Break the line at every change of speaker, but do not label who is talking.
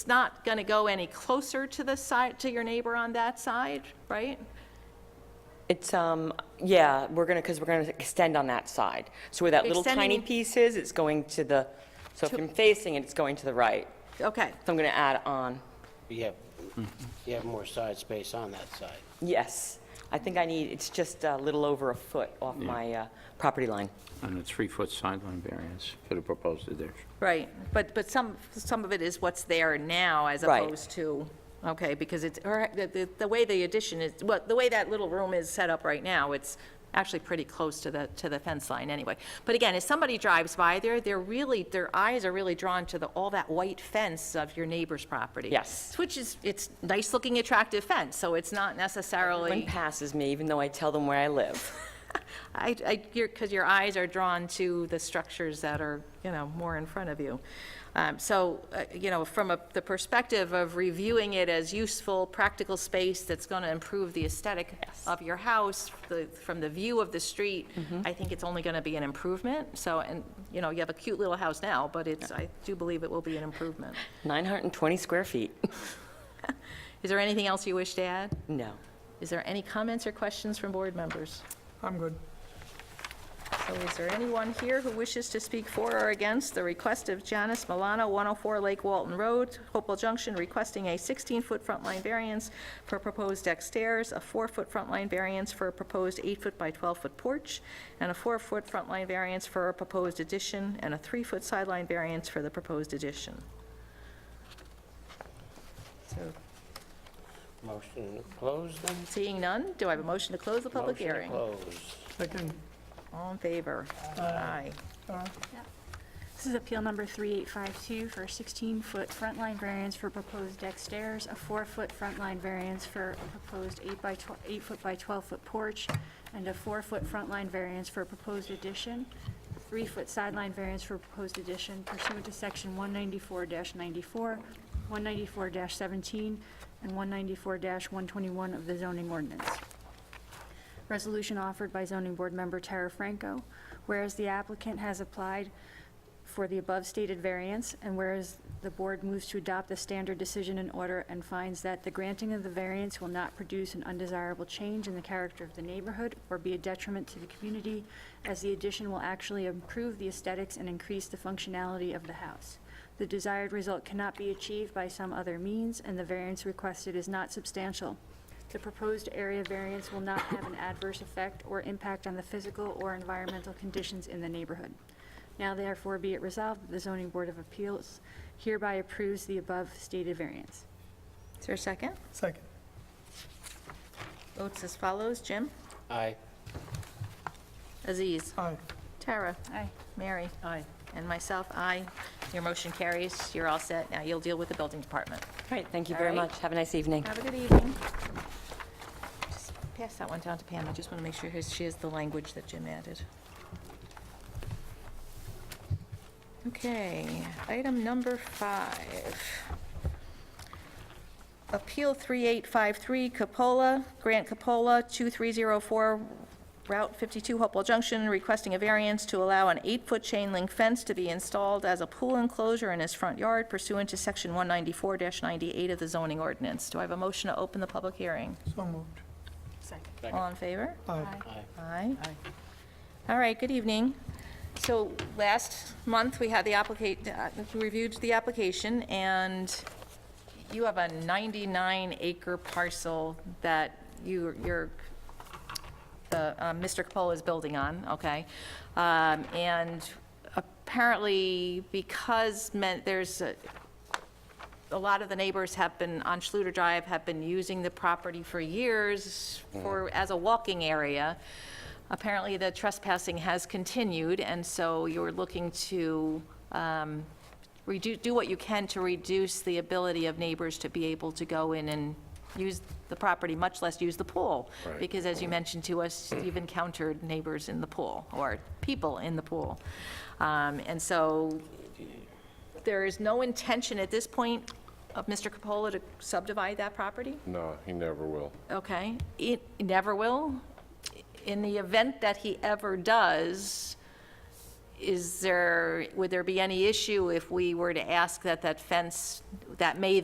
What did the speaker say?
It's not going to go any closer to the side, to your neighbor on that side, right?
It's, um, yeah, we're gonna, because we're gonna extend on that side. So where that little tiny
Extending-
piece is, it's going to the, so if I'm facing it, it's going to the right.
Okay,
So I'm gonna add on,
You have, you have more side space on that side.
yes. I think I need, it's just a little over a foot off my uh, property line.
And a three-foot sideline variance for the proposed addition.
right. But, but some, some of it is what's there now as
Right.
opposed to, okay, because it's, or the- the, the way the addition is, well, the way that little room is set up right now, it's actually pretty close to the, to the fence line anyway. But again, if somebody drives by there, they're really, their eyes are really drawn to the, all that white fence of your neighbor's property.
Yes.
Which is, it's nice-looking, attractive fence, so it's not necessarily.
One passes me, even though I tell them where I live.
I, I, your, because your eyes are drawn to the structures that are, you know, more in front of you. Um, so, uh, you know, from a, the perspective of reviewing it as useful, practical space that's going to improve the aesthetic of your house, the, from the view of the street, I think it's only going to be an improvement. So, and, you know, you have a cute little house now, but it's, I do believe it will be an improvement.
920 square feet.
Is there anything else you wish to add?
No.
Is there any comments or questions from board members?
I'm good.
So is there anyone here who wishes to speak for or against the request of Janice Milano, 104 Lake Walton Road, Hopewell Junction, requesting a 16-foot front line variance for proposed deck stairs, a 4-foot front line variance for a proposed 8-foot by 12-foot porch, and a 4-foot front line variance for a proposed addition, and a 3-foot sideline variance for the proposed addition? So
Motion to close then?
seeing none, do I have a motion to close the public
Motion to
hearing?
Close.
Second,
All in favor? Aye.
This is appeal number 3852 for a 16-foot front line variance for proposed deck stairs, a 4-foot front line variance for a proposed 8 by 12, 8-foot by 12-foot porch, and a 4-foot front line variance for a proposed addition, 3-foot sideline variance for a proposed addition pursuant to section 194-94, 194-17, and 194-121 of the zoning ordinance. Resolution offered by zoning board member Tara Franco. Whereas the applicant has applied for the above stated variance, and whereas the board moves to adopt the standard decision in order and finds that the granting of the variance will not produce an undesirable change in the character of the neighborhood or be a detriment to the community, as the addition will actually improve the aesthetics and increase the functionality of the house. The desired result cannot be achieved by some other means, and the variance requested is not substantial. The proposed area variance will not have an adverse effect or impact on the physical or environmental conditions in the neighborhood. Now therefore be it resolved that the zoning board of appeals hereby approves the above stated variance.
Is there a second?
second.
Votes as follows, Jim?
Aye.
Aziz?
Aye.
Tara?
Aye.
Mary? Aye. And myself, aye. Your motion carries. You're all set. Now you'll deal with the building department.
Great, thank you
All
very
right.
much. Have a nice evening.
Have a good evening. Just Pass that one down to Pam. I just want to make sure his- she has the language that Jim added. Okay, item number five. Appeal 3853 Capola, Grant Capola, 2304 Route 52, Hopewell Junction, requesting a variance to allow an eight-foot chain link fence to be installed as a pool enclosure in his front yard pursuant to Section 194-98 of the zoning ordinance. Do I have a motion to open the public hearing?
So moved.
All in favor?
Aye.
Aye.
Aye. All right, good evening. So last month, we had the applicant, uh, we reviewed the application, and you have a 99-acre parcel that you, you're, the, uh, Mr. Capola is building on, okay? Um, And apparently, because meant, there's a, a lot of the neighbors have been, on Schluter Drive, have been using the property for years for, as a walking area. Apparently, the trespassing has continued, and so you're looking to um, redu do what you can to reduce the ability of neighbors to be able to go in and use the property, much less use the pool. Because as you mentioned to us, you've encountered neighbors in the pool, or people in the pool. Um, And so there is no intention at this point of Mr. Capola to subdivide that property?
No, he never will.
Okay, it never will. In the event that he ever does, is there, would there be any issue if we were to ask that that fence, that may